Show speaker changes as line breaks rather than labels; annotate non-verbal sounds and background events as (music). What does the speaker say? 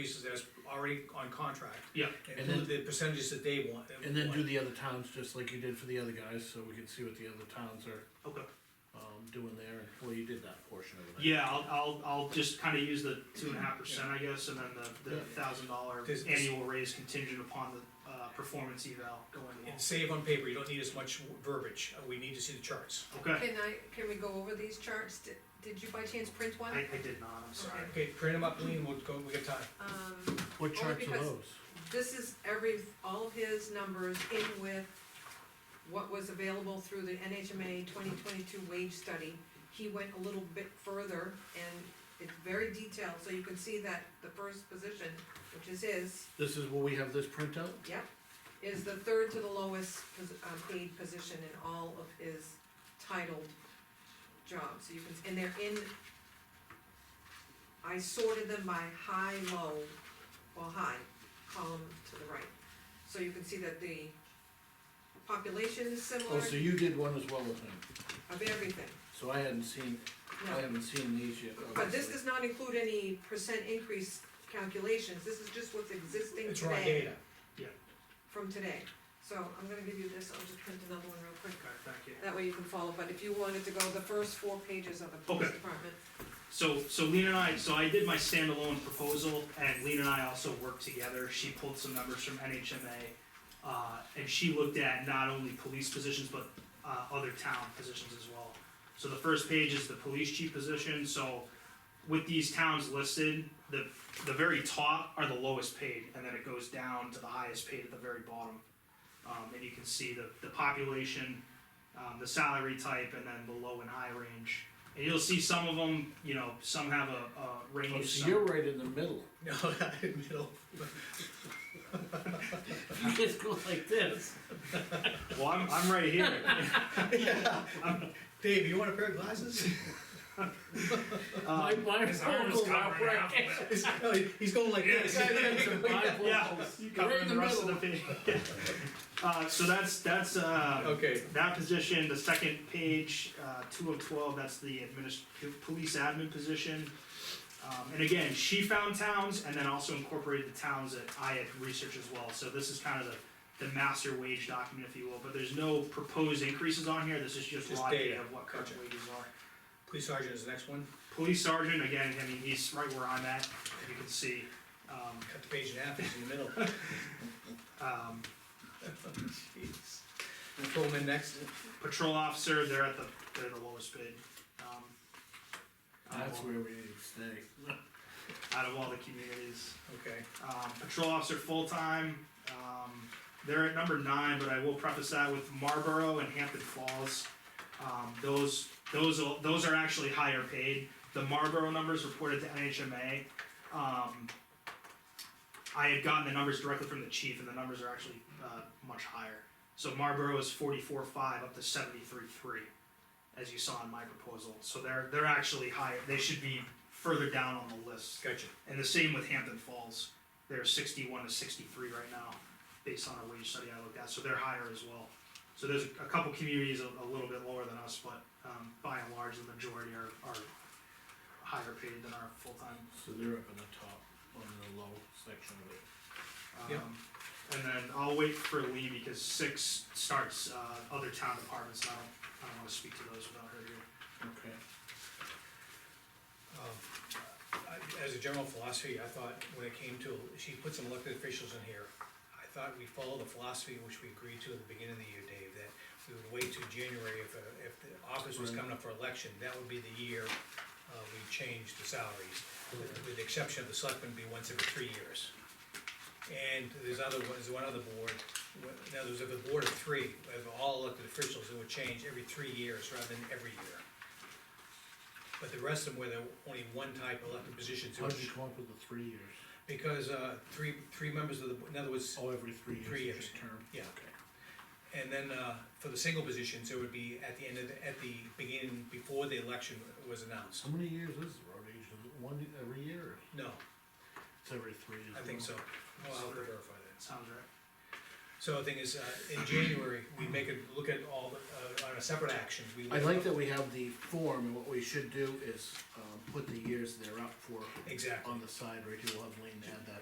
basis as already on contract.
Yeah,
And
And
do
then-
the percentages that they want.
And then do
want.
the other towns, just like you did for the other guys, so we can see what the other towns are,
okay.
um, doing there, well, you did that portion of it.
Yeah, I'll, I'll, I'll just kinda use the two and a half percent, I guess, and then the, the
Yeah.
thousand dollar
Does- does-
annual raise contingent upon the, uh, performance eval going along.
And save on paper, you don't need as much verbiage, Uh, we need to see the charts.
Okay,
Can I, can we go over these charts? Did, did you by chance print
I,
one?
I did not, I'm sorry.
Okay, print them up, Lean, we'll go, we got time.
Um,
What
Only
charts are
because-
those?
this is every, all of his numbers in with what was available through the NHMA twenty twenty-two wage study. He went a little bit further and it's very detailed, so you can see that the first position, which is his,
This is where we have this printout?
yep, is the third to the lowest pos- uh, paid position in all of his titled jobs, so you can, and they're in, I sorted them by high, low, or high, column to the right. So you can see that the population is similar
Oh,
of
so you did one as well as me,
everything,
so I hadn't seen, I
no.
haven't seen these yet.
But this
obviously.
does not include any percent increase calculations, this is just what's existing today.
It's raw data.
from today. So I'm gonna give you this, I'll just print another one real quick.
Okay, thank you.
That way you can follow, but if you wanted to go the first four pages of the police
Okay.
department.
So, so Lena and I, so I did my standalone proposal, and Lena and I also worked together. She pulled some numbers from NHMA, uh, and she looked at not only police positions but uh, other town positions as well. So the first page is the police chief position. So with these towns listed, the the very top are the lowest paid, and then it goes down to the highest paid at the very bottom. Um, and you can see the the population, um, the salary type, and then the low and high range. And you'll see some of them, you know, some have a, a range.
Oh, so
uh,
some-
you're right in the middle, (laughs)
No, (laughs) not in the middle.
you just go like this.
Well, I'm, I'm right here.
(laughs)
Dave, you want a pair of glasses? (laughs)
My,
Um,
my
Uh, His arm is
vocals aren't
covering half
right.
of it. (laughs)
(laughs)
He's no, he- he's going like this. (laughs)
My
yeah,
vocals, right
covering
in
the rest of the
middle.
page.
(laughs)
Uh, so that's, that's, uh.
Okay,
That position, the second page, uh, two of twelve, that's the adminis- police admin position. Um, and again, she found towns and then also incorporated the towns that I had researched as well, so this is kind of the, the master wage document, if you will, but there's no proposed increases on here, this is just
Just
raw
data.
data of what current
Gotcha.
wages are.
police sergeant is the next one,
Police sergeant, again, I mean, he's right where I'm at, you can see, um,
cut the page in half, he's in the middle. (laughs)
um,
Jeez. Pull him in next.
patrol officer, they're at the, they're the lowest bid, um. out of
That's
all-
where we need to stay.
Out of all the communities.
Okay,
um, patrol officer full-time. Um, they're at number nine, but I will preface that with Marlboro and Hampton Falls. Um, those, those, are- those are actually higher paid. The Marlboro numbers reported to NHMA. Um, I had gotten the numbers directly from the chief, and the numbers are actually uh, much higher. So Marlboro is forty-four five up to seventy-three three, as you saw in my proposal. So they're they're actually higher. They should be further down on the list.
gotcha.
And the same with Hampton Falls. They're sixty-one to sixty-three right now, based on a wage study I looked at, so they're higher as well. So there's a couple communities a, a little bit lower than us, but, um, by and large, the majority are, are higher paid than our full-time.
So they're up in the top, on the low section of it.
Yeah.
Um, And then I'll wait for Lee because six starts, uh, other town departments, and I don't, I don't wanna speak to those without her here.
Okay.
Um, I- As a general philosophy, I thought when it came to, she put some elected officials in here. I thought we follow the philosophy which we agreed to at the beginning of the year, Dave, that we would wait till January if, uh, if the office was coming up for election, that would be the year uh, we changed the salaries, with with the exception of the selectmen be once every three years. And there's other, there's one other board, wh- now there's a board of three, of all elected officials, it would change every three years rather than every year. But the rest of them were the only one type of elected positions,
How'd you come up with the three years?
because, uh, three, three members of the, in other words,
Oh, every three years.
Three
is
years.
your Term.
Yeah.
Okay.
And then, uh, for the single positions, it would be at the end of, the- at the beginning, before the election was announced.
How many years is the road agent? Is it one every year? or
No,
It's every three years.
I think so. Well, I'll have to verify that.
Sounds right.
So the thing is, uh, in January, we make a, look at all, the, uh, on a separate action, we.
I like that we have the form, and what we should do is, um, put the years they're up for
Exactly.
on the side, right here, we'll have Lean add that